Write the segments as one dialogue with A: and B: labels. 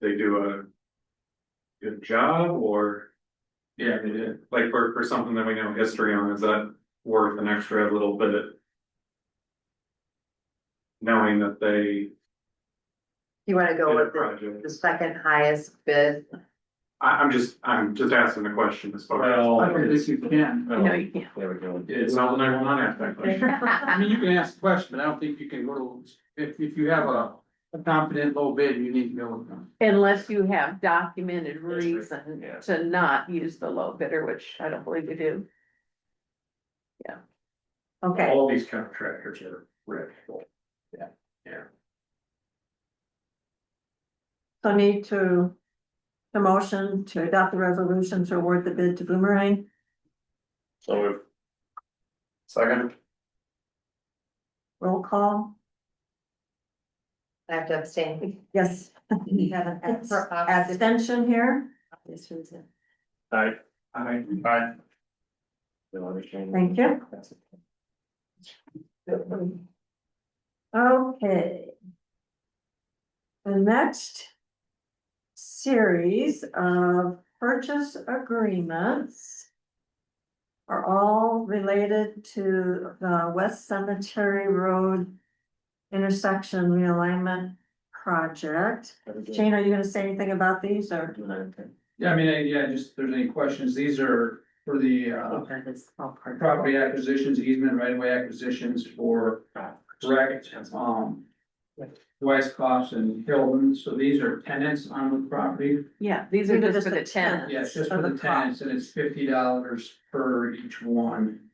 A: they do a. Good job or? Yeah, they did, like for for something that we know history on, is that worth an extra little bit? Knowing that they
B: You wanna go
A: did a
B: with the,
A: project,
B: the second highest bid?
A: I I'm just, I'm just asking the question as far as.
C: Well,
D: I don't think you can.
B: No, you can't.
C: There we go.
A: It's not the nine one one aspect, like,
D: I mean, you can ask a question, but I don't think you can go to, if, if you have a, a confident low bid, you need to go with them.
E: Unless you have documented
A: right.
E: reason
C: Yeah.
E: to not use the low bidder, which I don't believe you do.
B: Okay,
A: all these contractors are rich.
B: so need to, the motion to adopt the resolution to award the bid to Boomerang.
C: So moved. Second.
B: Roll call. I have to abstain. Yes, you have an abs- abstention here.
C: Aye.
A: I,
C: Aye.
B: Thank you. Okay. The next series of purchase agreements are all related to the West Cemetery Road intersection realignment project. Jane, are you gonna say anything about these or?
D: Yeah, I mean, I- yeah, just if there's any questions, these are for the, uh, property acquisitions, easement, right of way acquisitions for wrecked, um, Weisskopf and Hilton, so these are tenants on the property.
E: Yeah, these are
B: These
E: just for the tenants.
D: Yeah, it's just
B: Of
D: for
B: the
D: the tenants, and it's fifty dollars per each one.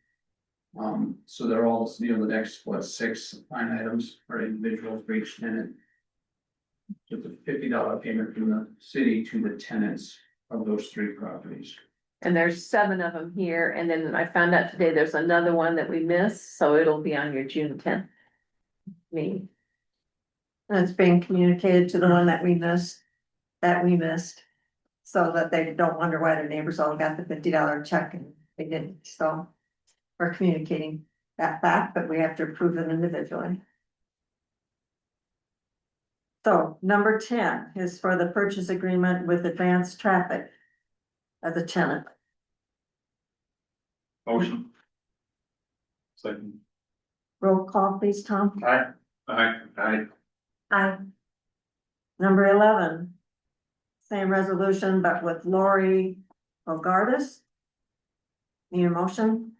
D: Um, so they're all, you know, the next, what, six line items or individuals for each tenant. Just a fifty dollar payment from the city to the tenants of those three properties.
E: And there's seven of them here, and then I found out today there's another one that we missed, so it'll be on your June tenth. Me,
B: And it's being communicated to the one that we missed, that we missed. So that they don't wonder why their neighbors all got the fifty dollar check and they didn't, so. We're communicating that fact, but we have to approve them individually. So number ten is for the purchase agreement with advanced traffic. As a tenant,
A: motion. Second,
B: roll call please, Tom.
C: Aye.
A: I, I,
B: Aye. Number eleven. Same resolution, but with Lori Bogardus. Need a motion?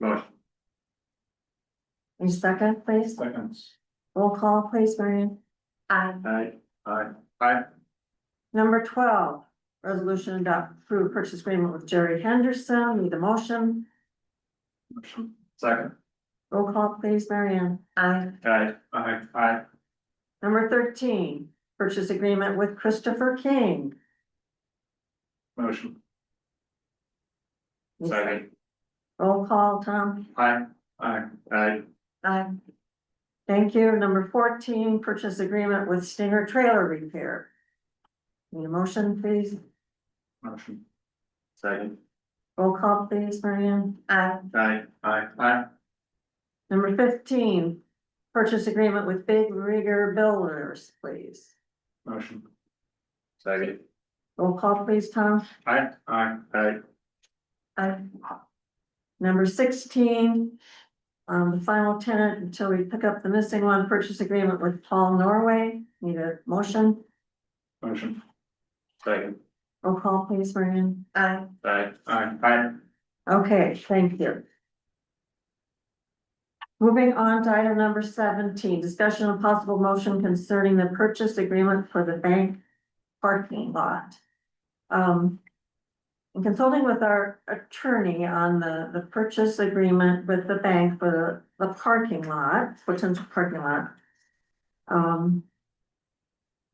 C: Motion.
B: Need a second, please?
A: seconds,
B: Roll call, please, Marion. Aye.
C: Aye.
A: I,
B: Number twelve, resolution adopt through purchase agreement with Jerry Henderson. Need a motion?
A: motion,
C: Second.
B: Roll call, please, Marion. Aye.
C: Aye.
A: I,
C: Aye.
B: Number thirteen, purchase agreement with Christopher King.
A: motion,
B: Need a Roll call, Tom.
C: Aye.
A: I,
C: Aye.
B: Aye. Thank you. Number fourteen, purchase agreement with Stinger Trailer Repair. Need a motion, please?
A: motion,
C: Second.
B: Roll call, please, Marion. Aye.
C: Aye.
A: I,
C: Aye.
B: Number fifteen, purchase agreement with Big Rigger Builders, please.
A: motion,
C: Second.
B: Roll call, please, Tom.
C: Aye.
A: I,
C: Aye.
B: Aye. Number sixteen, um, the final tenant until we pick up the missing one, purchase agreement with Paul Norway. Need a motion?
A: motion,
C: Second.
B: Roll call, please, Marion. Aye.
C: Aye.
A: I,
C: Aye.
B: Okay, thank you. Moving on to item number seventeen, discussion of possible motion concerning the purchase agreement for the bank parking lot. Um. In consulting with our attorney on the, the purchase agreement with the bank for the, the parking lot, potential parking lot. Um.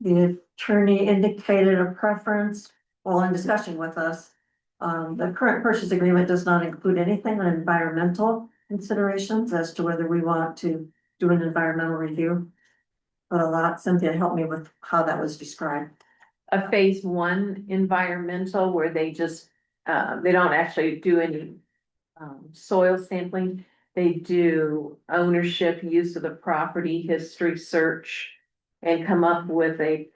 B: The attorney indicated a preference, while in discussion with us, um, the current purchase agreement does not include anything on environmental considerations as to whether we want to do an environmental review. But a lot, Cynthia helped me with how that was described.
E: a phase one environmental where they just, uh, they don't actually do any. Um, soil sampling, they do ownership, use of the property, history search. And come up with a